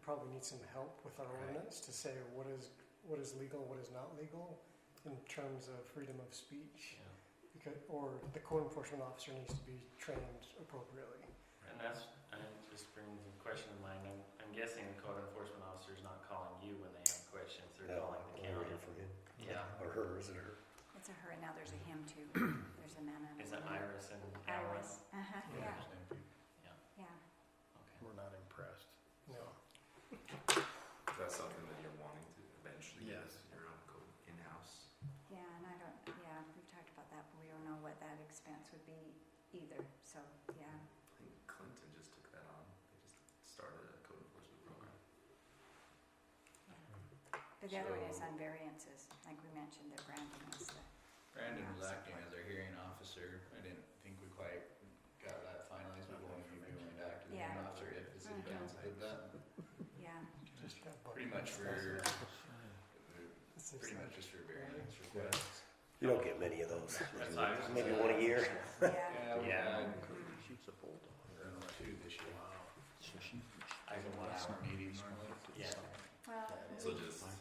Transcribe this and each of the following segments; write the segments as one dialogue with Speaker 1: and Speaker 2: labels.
Speaker 1: probably need some help with our
Speaker 2: Right.
Speaker 1: ordinance to say what is, what is legal, what is not legal in terms of freedom of speech. Because, or the code enforcement officer needs to be trained appropriately.
Speaker 3: And that's, and it just brings a question to mind, I'm, I'm guessing the code enforcement officer is not calling you when they have questions, they're
Speaker 2: No,
Speaker 3: calling the
Speaker 2: I'm
Speaker 3: county.
Speaker 2: waiting for him.
Speaker 3: Yeah,
Speaker 2: Or her, is it her?
Speaker 4: It's a her, and now there's a him too. There's a man and a
Speaker 3: is it
Speaker 4: woman.
Speaker 3: Iris and Alan?
Speaker 4: Iris, uh-huh, yeah, yeah.
Speaker 3: Okay.
Speaker 5: We're not impressed.
Speaker 1: No.
Speaker 6: Is that something that you're wanting to eventually get
Speaker 5: Yes.
Speaker 6: your own code in-house?
Speaker 4: Yeah, and I don't, yeah, we've talked about that, but we don't know what that expense would be either, so, yeah.
Speaker 6: I think Clinton just took that on. They just started a code enforcement program.
Speaker 4: yeah. But the other one is on variances, like we mentioned, that Brandon is the,
Speaker 5: Brandon was acting as our hearing officer. I didn't think we quite got that finalized, but when you went back to the hearing
Speaker 4: Yeah.
Speaker 5: officer, if it's
Speaker 4: Mhm.
Speaker 5: advanced, did that.
Speaker 4: yeah,
Speaker 5: Just
Speaker 1: Yeah, but-
Speaker 5: pretty much for,
Speaker 1: It's just
Speaker 5: pretty
Speaker 1: like-
Speaker 5: much just for variance requests.
Speaker 2: You don't get many of those.
Speaker 3: That's Iris.
Speaker 2: Maybe one a year.
Speaker 4: yeah.
Speaker 5: Yeah, we
Speaker 3: Yeah.
Speaker 5: had
Speaker 4: Mm.
Speaker 5: around two this year.
Speaker 3: I
Speaker 5: Like a
Speaker 3: can
Speaker 5: one
Speaker 3: last
Speaker 5: hour
Speaker 3: one.
Speaker 5: meeting normally.
Speaker 3: Yeah.
Speaker 4: Well,
Speaker 6: So just, if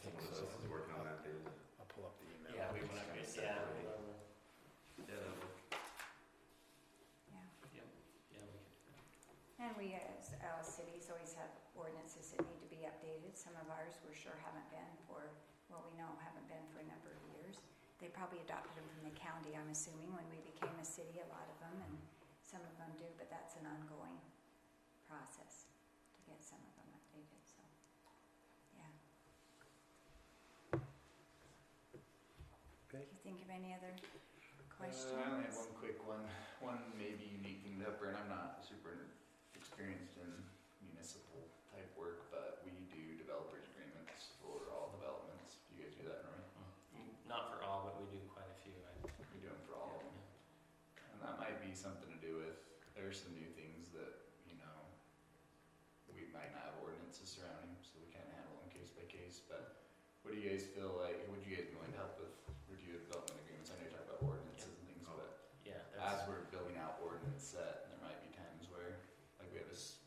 Speaker 6: someone else is working on that, they would.
Speaker 5: I'll pull up the email.
Speaker 3: Yeah, we went up,
Speaker 6: Kinda separate.
Speaker 3: yeah, well,
Speaker 6: Yeah, that would.
Speaker 4: yeah.
Speaker 3: yeah, we could do that.
Speaker 4: And we, as uh, cities, always have ordinances that need to be updated. Some of ours, we're sure haven't been for, what we know, haven't been for a number of years. They probably adopted them from the county, I'm assuming, when we became a city, a lot of them, and some of them do, but that's an ongoing process to get some of them updated, so, yeah.
Speaker 2: Okay.
Speaker 4: Do you think of any other questions?
Speaker 5: Uh, I only have one quick one, one maybe unique thing to Upper, and I'm not super experienced in municipal type work, but we do developers agreements for all developments. Do you guys do that, Norman?
Speaker 3: Not for all, but we do quite a few, I,
Speaker 5: We do them for all of them. And that might be something to do with, there's some new things that, you know, we might not have ordinances surrounding, so we can't handle them case by case, but what do you guys feel like, would you guys be willing to help with review of development agreements? I know you talk about ordinances and things, but
Speaker 3: yeah,
Speaker 5: as
Speaker 3: that's,
Speaker 5: we're building out ordinance set, there might be times where, like we have a, s-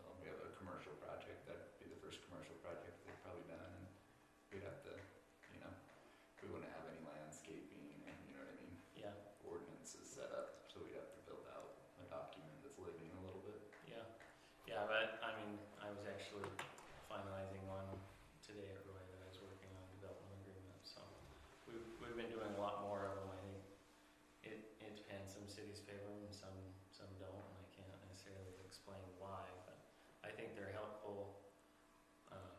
Speaker 5: well, we have a commercial project, that'd be the first commercial project they've probably done, and we'd have to, you know, we wouldn't have any landscaping, and you know what I mean,
Speaker 3: yeah,
Speaker 5: ordinances set up, so we'd have to build out a document that's living a little bit.
Speaker 3: yeah. Yeah, but, I mean, I was actually finalizing one today at Roy that I was working on development agreement, so. We've, we've been doing a lot more of them, I think. It, it depends, some cities favor them, some, some don't, and I can't necessarily explain why, but I think they're helpful, um,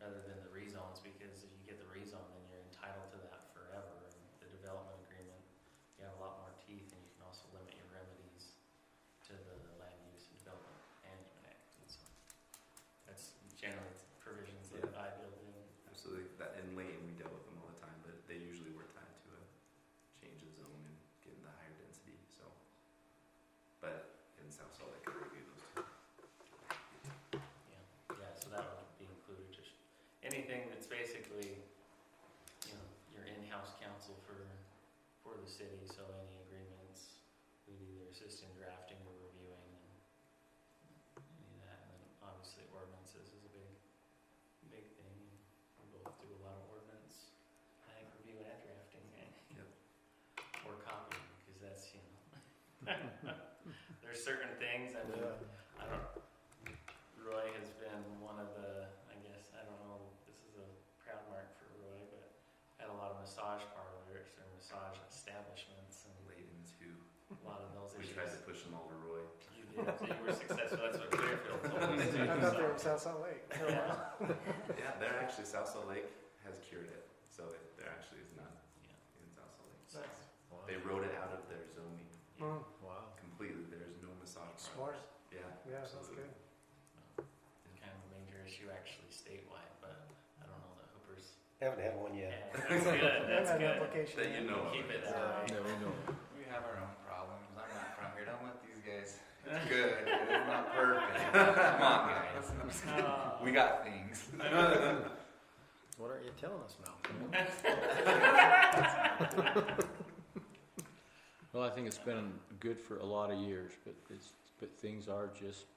Speaker 3: rather than the rezones, because if you get the rezone, then you're entitled to that forever, and the development agreement, you have a lot more teeth, and you can also limit your remedies to the land use and development management act, and so. That's generally provisions that I build in.
Speaker 6: Absolutely. That in Lane, we dealt with them all the time, but they usually were tied to a change of zone and getting the higher density. So, but in South Salt Lake, I review those two.
Speaker 3: Yeah, yeah, so that would be included, just anything that's basically, you know, your in-house counsel for, for the city, so any agreements, we'd either assist in drafting or reviewing and any of that, and then obviously ordinances is a big, big thing, we both do a lot of ordinance, I think review and drafting, and or copying, because that's, you know, there's certain things, I mean, I don't. Roy has been one of the. I guess I don't know. This is a proud mark for Roy, but had a lot of massage parlors or massage establishments and
Speaker 6: Layden too.
Speaker 3: a lot of those
Speaker 6: We
Speaker 3: issues.
Speaker 6: tried to push them all to Roy.
Speaker 3: You did. So you were successful. That's what Clearfield told
Speaker 1: I thought
Speaker 3: us.
Speaker 1: they were
Speaker 3: So,
Speaker 1: South Salt Lake.
Speaker 3: yeah.
Speaker 6: Yeah, they're actually South Salt Lake has cured it, so it, there actually is none
Speaker 3: Yeah.
Speaker 6: in South Salt Lake.
Speaker 3: So,
Speaker 6: They wrote it out of their zoning
Speaker 1: Mm,
Speaker 3: yeah.
Speaker 6: completely. There's no massage
Speaker 1: Smart.
Speaker 6: parlors. Yeah,
Speaker 1: Yeah, that's
Speaker 6: absolutely.
Speaker 1: good.
Speaker 3: It's kind of a major issue actually statewide, but I don't know the Hoopers.
Speaker 2: Haven't had one yet.
Speaker 3: that's good. That's
Speaker 1: An
Speaker 3: good.
Speaker 1: application.
Speaker 6: That you know. of.
Speaker 3: Keep it
Speaker 4: Yeah.
Speaker 3: that way.
Speaker 5: We have our own problems, I'm not from here, don't let these guys,
Speaker 6: It's good. It's not perfect. Come on, guys.
Speaker 3: Oh.
Speaker 5: we got things.
Speaker 7: What are you telling us now? well, I think it's been good for a lot of years, but it's but things are just